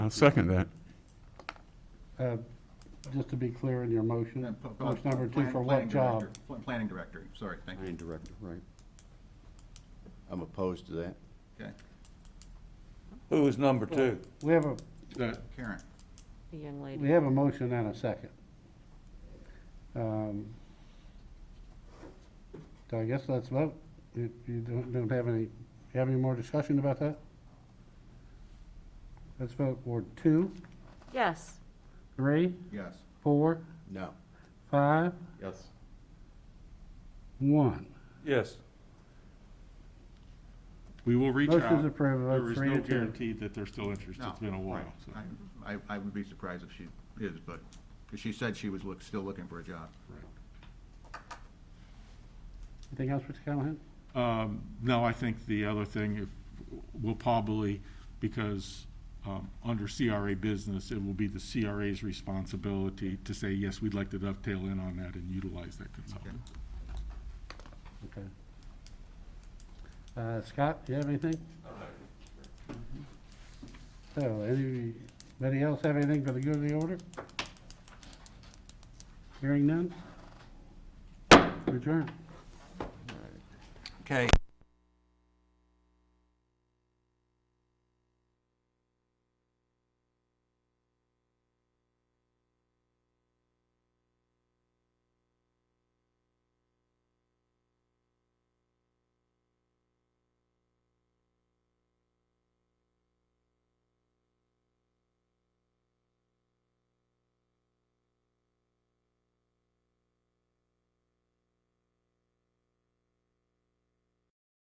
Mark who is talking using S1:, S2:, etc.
S1: I'll second that.
S2: Uh, Just to be clear in your motion,
S3: Pl- pl-
S2: motion number two
S3: plan-
S2: for what
S3: planning
S2: job?
S3: director. Pl- Planning director, sorry, thank you.
S4: Planning director, right. I'm opposed to that.
S3: Okay,
S5: Who was number two?
S2: We have a,
S3: Karen,
S6: The young
S2: we
S6: lady.
S2: have a motion and a second. Um, So I guess let's vote. If you don't, don't have any, you have any more discussion about that? Let's vote Ward two,
S6: Yes.
S2: three,
S3: yes.
S2: four,
S4: No.
S2: five,
S4: Yes.
S2: one.
S5: Yes.
S1: We will reach out.
S2: Motion's approved, vote three
S1: There
S2: to
S1: is no
S2: two.
S1: guarantee that they're still interested.
S3: No,
S1: It's been a while.
S3: right.
S1: so-
S3: I, I- I would be surprised if she is, but, because she said she was look, still looking for a job.
S2: Anything else, Mr. Callahan?
S1: Um, No, I think the other thing, if, will probably, because um, under CRA business, it will be the CRA's responsibility to say, yes, we'd like to dovetail in on that and utilize that consultant.
S2: Okay. Uh, Scott, do you have anything? So, any- anybody else have anything for the good of the order? Hearing none? Return.
S3: Okay,